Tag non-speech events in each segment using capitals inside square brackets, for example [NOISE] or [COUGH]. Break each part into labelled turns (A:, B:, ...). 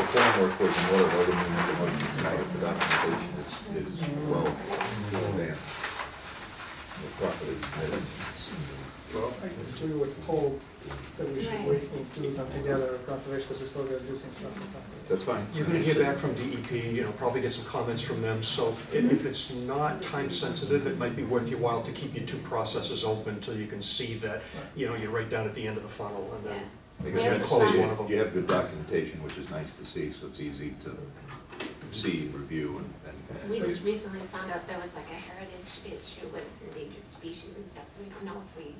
A: framework was in order, other than the one, the documentation is, is well advanced. The property submitted.
B: I agree with Paul that we should wait and do them together in conservation, because we're still gonna do some stuff in conservation.
A: That's fine.
C: You're gonna hear back from DEP, you know, probably get some comments from them, so i- if it's not time sensitive, it might be worth your while to keep your two processes open till you can see that, you know, you're right down at the end of the funnel and then.
A: Because
C: Yeah,
A: that's-
C: close
A: you-
C: one of them.
A: You have good documentation, which is nice to see, so it's easy to see, review, and- and.
D: We
A: and-
D: just recently found out there was like a heritage issue with endangered species and stuff, so we don't know if we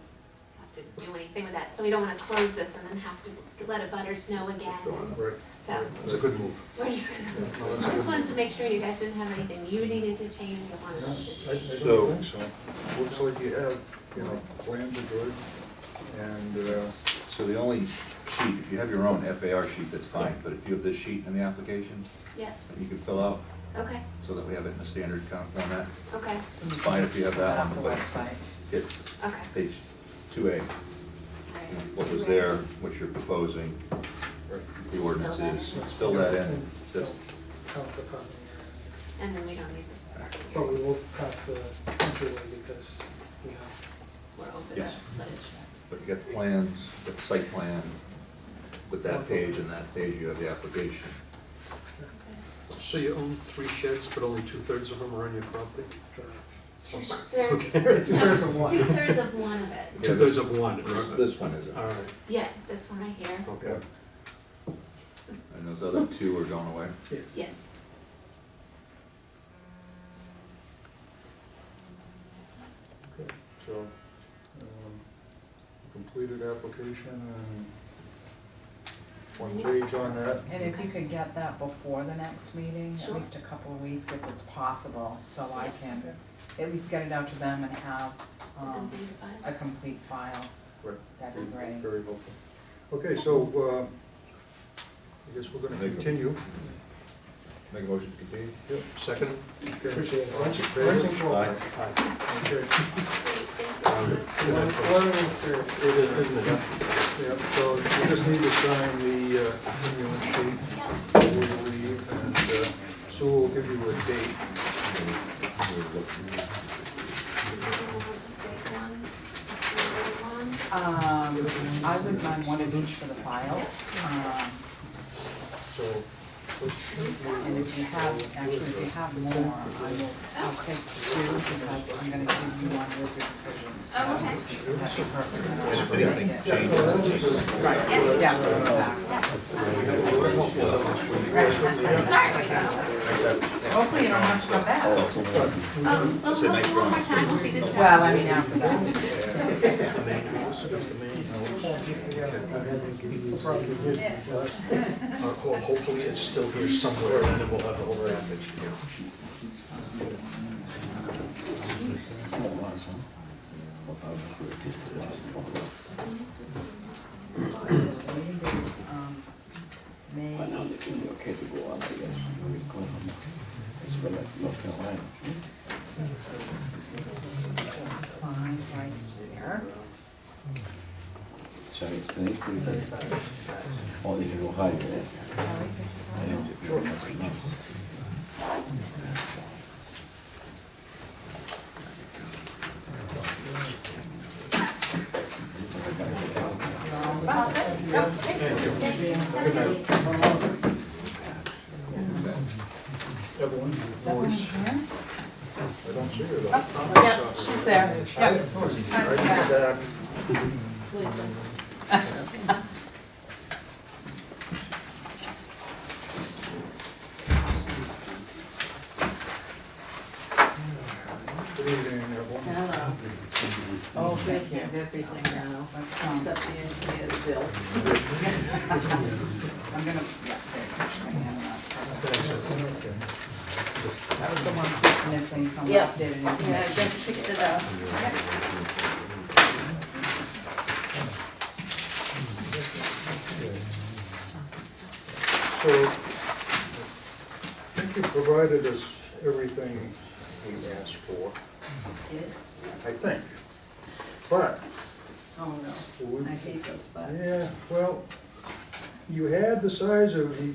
D: have to do anything with that. So we don't wanna close this and then have to let a butters know again,
A: Going up.
C: Right.
D: so
C: It's a good move.
D: we're just gonna, I just wanted to make sure you guys didn't have anything you needed to change or wanted us to
E: I, I
D: change.
A: So-
E: don't think so. Looks like you have, you know, plans are good, and, uh,
A: So the only sheet, if you have your own FAR sheet, that's fine, but if you have this sheet in the application,
D: Yeah,
A: that you can fill out,
D: okay,
A: so that we have it in a standard kind of format,
D: okay,
A: it's fine if you have that on the
F: website.
A: it's
D: okay.
A: page two A,
D: Alright.
A: what was there, what you're proposing, the
D: Just
A: ordinance
D: fill that
A: is,
D: in.
A: fill that in, that's,
B: Count the property.
D: And then we don't need
B: But we
D: the,
B: will count the entryway because we have,
D: we're over the
A: Yes.
D: footage.
A: but you got the plans, got the site plan, with that page and that page, you have the application.
C: So you own three sheds, but only two-thirds of them are on your property?
B: uh,
D: There-
B: two-thirds of one.
D: Two-thirds of one of it,
C: [LAUGHS]
A: Yeah,
C: Two-thirds of one.
A: This, this one is,
C: All
A: and
C: right,
D: yeah, this one right here,
C: okay.
A: those other two are going away.
B: Yes.
D: yes.
E: so, um, completed application and one page on that.
F: And if you could get that before the next meeting, at
D: Sure.
F: least a couple of weeks if it's possible, so I can at least get it out to them and have, um,
D: Complete the file.
F: a complete file,
E: Right,
F: that'd be great.
E: Very helpful. Okay, so, uh, I guess we're gonna continue.
A: Make a motion to continue?
E: Yep,
C: Second?
E: okay.
B: Appreciate it.
E: All in favor?
A: Aye.
C: Aye.
E: Okay,
D: Great, thank you.
B: One, one interior.
C: It is, isn't it?
E: yep, so we just need to sign the uh, continuance sheet
D: Yeah.
E: before we leave, and uh, Sue will give you a date.
F: Um, I would mind one of each for the file, um,
E: So,
F: and if you have, actually, if you have more, I will, I'll take two because I'm gonna give you one with your decisions.
D: Oh, okay.
F: That's your first one.
A: If anything
F: Yeah.
A: changes,
F: Right, yeah, exactly.
D: Start right now.
F: Hopefully you don't have to come back.
D: Oh, well,
A: Say nice
D: one one more
A: drawing.
D: time, we'll be good.
F: Well, I mean, after that.
C: Uh, ho- Hopefully it's still here somewhere, and then we'll have the whole package here.
F: The meeting is, um, May eighteenth.
G: okay to go on, I guess. It's been at North Carolina.
F: Sign right here.
G: So it's the next week, or they can go higher, eh?
F: Sorry, could you sign
G: I didn't
F: that?
G: get very much notice.
D: Well, good. No, thanks. Thank you. Have a good day.
E: everyone,
F: Is that one here?
E: I don't see it.
F: Yep, she's there. Yep, she's
E: I
F: hiding
E: need
F: back.
E: that. Good evening, everyone.
H: Hello.
F: Oh, thank you.
H: have everything now,
F: Let's, um,
H: except the engineer's
F: [LAUGHS]
H: bills.
F: I'm gonna, yeah, there, catch my hand up. That was the one that's missing from the
H: Yeah.
F: updated
H: Yeah, I
F: information.
H: just picked it up.
E: So, I think you provided us everything we asked for,
H: Did?
E: I think. But,
H: Oh, no.
E: we-
H: I hate those buttons.
E: yeah, well, you had the size of the